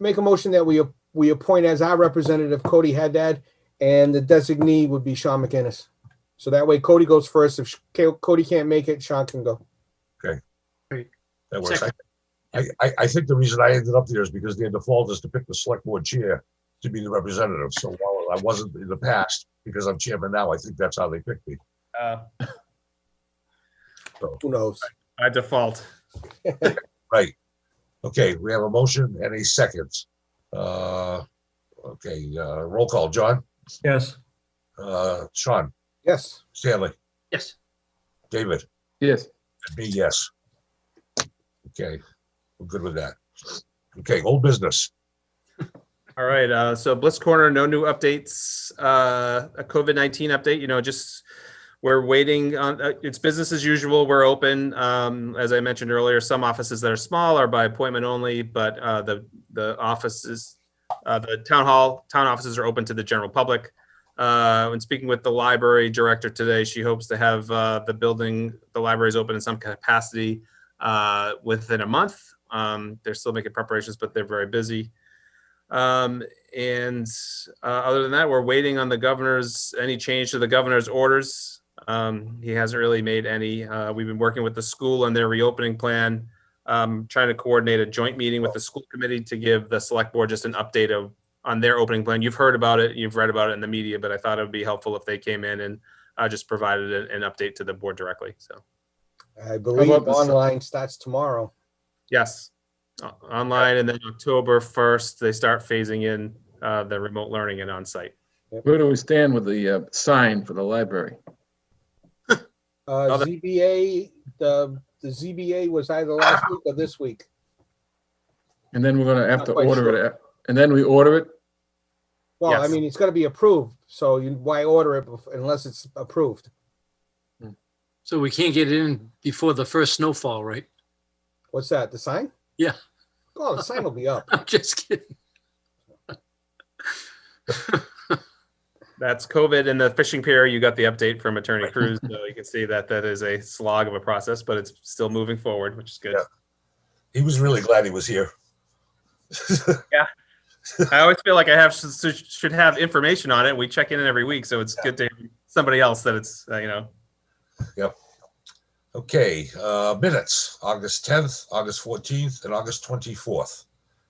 make a motion that we, we appoint as our representative Cody Haddad, and the designee would be Sean McInnes. So that way Cody goes first. If Cody can't make it, Sean can go. That works. I, Second. I, I think the reason I ended up there is because their default is to pick the select board chair to be the representative. So while I wasn't in the past, because I'm chairman now, I think that's how they picked me. Uh, Who knows? By default. Right. Okay, we have a motion and a second. Uh, okay, uh, roll call. John, Yes. uh, Sean, Yes. Stanley, Yes. David, Yes. and me, yes. Okay, we're good with that. Okay, old business. All right. Uh, so Bliss Corner, no new updates. Uh, a COVID nineteen update. You know, just we're waiting on. Uh, it's business as usual. We're open. Um, as I mentioned earlier, some offices that are small are by appointment only, but uh, the the offices, uh, the town hall, town offices are open to the general public. Uh, when speaking with the library director today, she hopes to have uh, the building, the libraries open in some capacity uh, within a month. Um, they're still making preparations, but they're very busy. Um, and uh, other than that, we're waiting on the governor's any change to the governor's orders. Um, he hasn't really made any. Uh, we've been working with the school on their reopening plan, um, trying to coordinate a joint meeting with the school committee to give the select board just an update of on their opening plan. You've heard about it, you've read about it in the media, but I thought it would be helpful if they came in and uh, just provided an, an update to the board directly. So I believe about the- online starts tomorrow. yes, O- online and then October first they start phasing in uh, the remote learning and on site. Where do we stand with the uh, sign for the library? Uh, Other- ZBA, the, the ZBA was either last week or this week. And then we're gonna have to Not quite order it, a- and then we order it? Well, I Yes. mean, it's gonna be approved, so you, why order it bef- unless it's approved? So we can't get it in before the first snowfall, right? What's that, the sign? Yeah. Oh, the sign will be up. I'm just kidding. That's COVID and the fishing pier. You got the update from Attorney Cruz, so you can see that that is a slog of a process, but it's still moving forward, which is good. He was really glad he was here. I always feel like I have should should have information on it. We check in every week, so it's good to hear somebody else that it's uh, you know Okay, uh, minutes, August tenth, August fourteenth, and August twenty-fourth.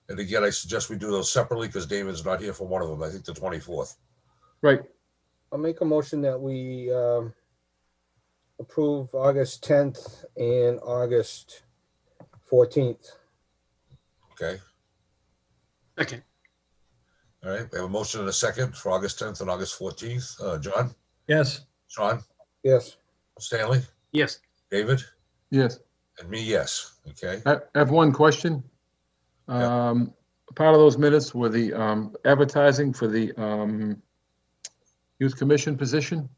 And again, I suggest we do those separately because David's not here for one of them. I think the twenty-fourth. Right, I'll make a motion that we, um, approve August tenth and August fourteenth. Okay, Okay. all right. We have a motion and a second for August tenth and August fourteenth. Uh, John, Yes. Sean, Yes, Stanley, Yes. David, yes. and me, yes. Okay, I I have one question. Yeah. Um, Part of those minutes were the um, advertising for the um, youth commission position.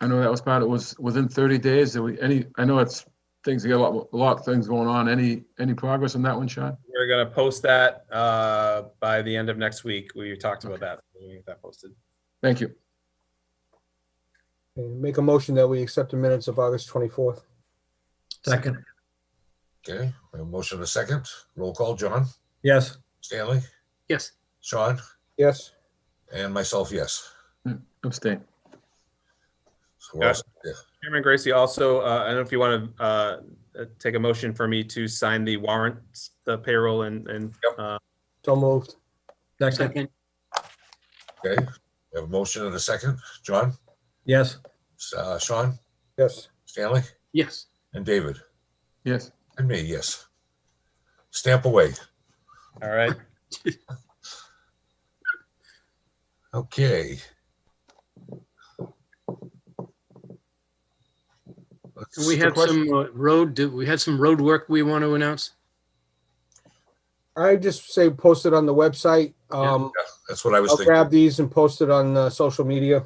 I know that was part, it was within 30 days. Did we, any, I know it's, things, got a lot, a lot of things going on. Any, any progress on that one, Sean? we're gonna post that uh, by the end of next week. We talked about that. We get that posted. Thank you. and make a motion that we accept the minutes of August twenty-fourth. Second. okay. We have a motion and a second. Roll call, John, Yes. Stanley, Yes. Sean, Yes, and myself, yes. Abstain. So we're all set there. Chairman Gracie, also, uh, I don't know if you want to uh, uh, take a motion for me to sign the warrants, the payroll, and and uh, so moved. Second. Second. Okay, we have a motion and a second. John, Yes. uh, Sean, Yes, Stanley, Yes. and David. Yes. And me, yes. Stamp away. all right. Okay. Let's- And we have some uh, road, do- we had some road work we want to announce. I just say post it on the website. Um, That's what I Oh, was I'll thinking. grab these and post it on, uh, social media.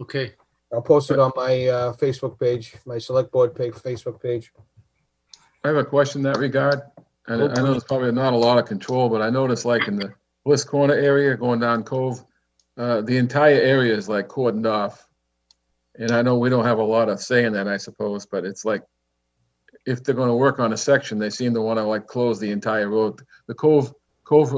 Okay. I'll post it on my uh, Facebook page, my select board page, Facebook page. I have a question in that regard. And I know there's probably not a lot of control, but I noticed like in the Bliss Corner area going down Cove, uh, the entire area is like cordoned off. And I know we don't have a lot of say in that, I suppose, but it's like, if they're gonna work on a section, they seem to wanna like close the entire road. The Cove, Cove